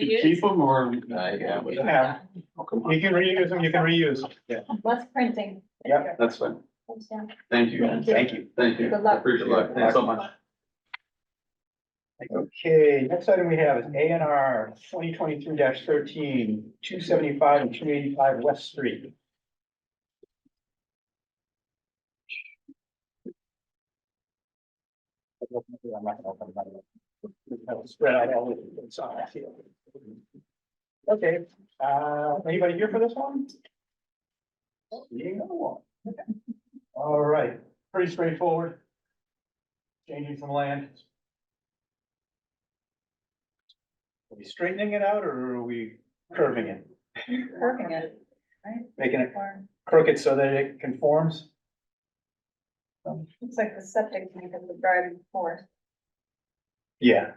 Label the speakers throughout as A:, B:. A: You
B: Keep
A: Reuse,
B: them or?
C: Uh, yeah, we-
B: Yeah,
D: You can reuse them, you can reuse.
E: Less printing.
D: Yep.
B: that's fine.
E: Thanks, Dan.
B: Thank you.
E: Thank
B: you. Thank you.
E: Good luck.
B: Appreciate it. Thanks so much.
D: Okay, next item we have is A and R twenty twenty-three 13 thirteen, two seventy-five and two eighty-five West Street. I'm not gonna open it up. I'll Spread out all the inside here. Okay, uh, anybody here for this one? Meeting number one. All right, pretty straightforward. Changing some land. Are we straightening it out or are we curving it,
E: Working it.
D: making it
E: Or
D: crooked so that it conforms?
E: It's like the septic tank of the driving force
D: Yeah.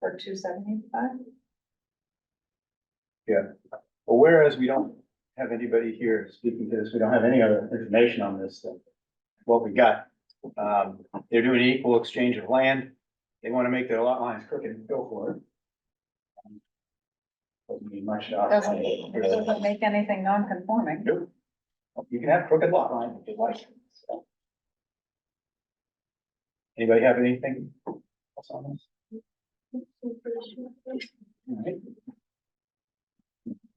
E: for two seventy-five.
D: Well, whereas we don't have anybody here speaking to this, we don't have any other information on this than what we got. Um, they're doing an equal exchange of land. They want to make their lot lines crooked, go for it. Doesn't mean much. to us.
E: Doesn't, it doesn't make anything non-conforming.
D: Nope. You can have crooked lot line if you like. so. Anybody have anything else on this? All right.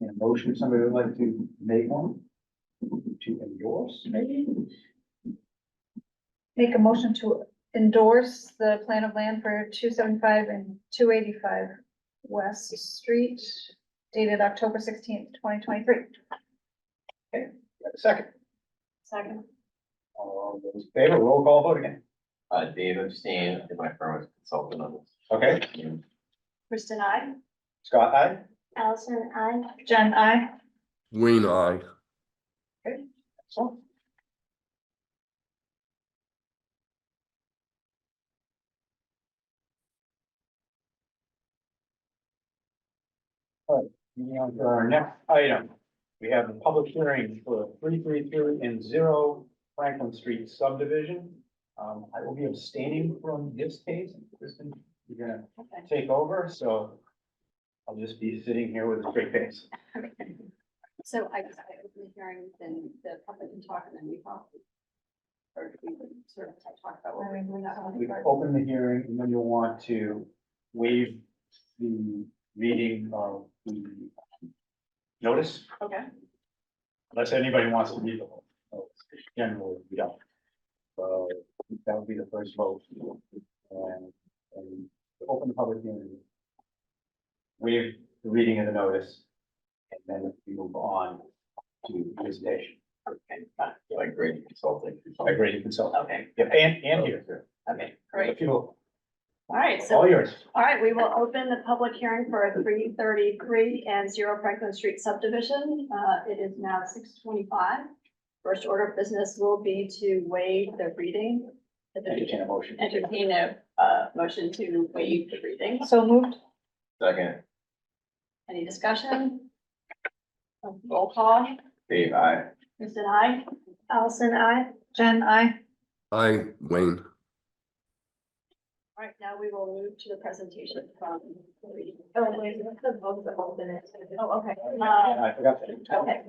D: And a motion, somebody would like to make one? To endorse, maybe?
E: Make a motion to endorse the plan of land for two seventy-five and two eighty-five West Street dated October sixteenth, twenty twenty-three.
D: You have a Second,
E: Second.
D: all those in favor, roll call vote again.
C: Uh, Dave Abstain, I think my firm was consultant on this.
D: Okay,
F: Kristen, I.
D: Scott, aye?
F: Allison, I.
E: Jen, I.
G: Wayne, I.
D: Excellent. All right, moving on to our next item. We have a public hearing for three three three and zero Franklin Street subdivision. Um, I will be abstaining from this case. Kristen, you're gonna
F: Okay.
D: take over, so I'll just be sitting here with a straight face.
F: So I guess I open the hearing, then the public can talk and then we talk. Or do we sort of talk about what we're doing.
D: We can open the hearing and then you'll want to waive the reading of the notice,
F: Okay.
D: unless anybody wants to read the whole. notice. Generally, we don't. So that would be the first vote. And, and open the public hearing. Waive the reading of the notice. And then we move on to presentation.
C: Like great consulting.
D: I agree, you can sell.
F: Okay,
D: Yeah, and, and here.
F: okay, great.
D: People,
F: All right, so,
D: all yours.
F: all right, we will open the public hearing for three thirty-three and zero Franklin Street subdivision. Uh, it is now six twenty-five. First order of business will be to waive the reading.
D: Entertain a motion.
F: Entertain a, uh, motion to waive the reading.
E: So moved.
C: Second,
F: Any discussion? Roll call,
C: Dave, I.
F: Kristen, I. Allison, I.
E: Jen, I.
G: I, Wayne.
F: All right, now we will move to the presentation from. the reading.
E: Oh, wait, that's the vote that was in it.
F: Oh, okay. Uh,
D: I forgot that.
F: Okay,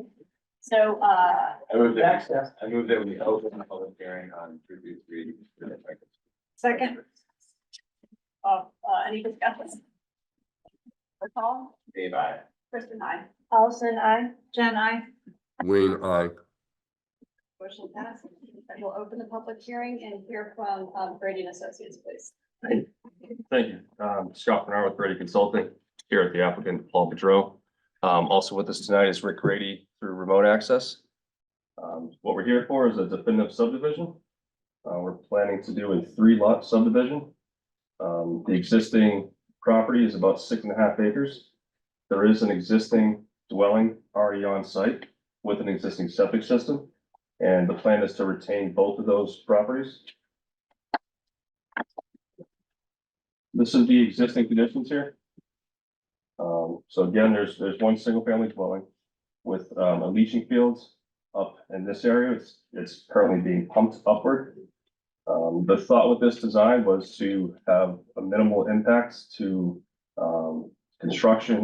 F: so, uh,
C: I moved that,
D: Access.
C: I moved that we open the public hearing on three, three, three.
E: Second.
F: uh, uh, any discussions? Roll call,
C: Dave, I.
F: Kristen, I.
E: Allison, I. Jen, I.
G: Wayne, I.
F: Motion passed. And we'll open the public hearing and hear from um, Brady and Associates, please.
H: Thank you. Um, Scott Bernard with Brady Consulting, here at the applicant, Paul Pedro. Um, also with us tonight is Rick Grady through remote access. Um, what we're here for is a definitive subdivision. Uh, we're planning to do a three lot subdivision. Um, the existing property is about six and a half acres. There is an existing dwelling already on site with an existing septic system. And the plan is to retain both of those properties. This is the existing conditions here. Um, so again, there's, there's one single family dwelling with, um, a leaching field up in this area. It's, it's currently being pumped upward. Um, the thought with this design was to have a minimal impact to, um, construction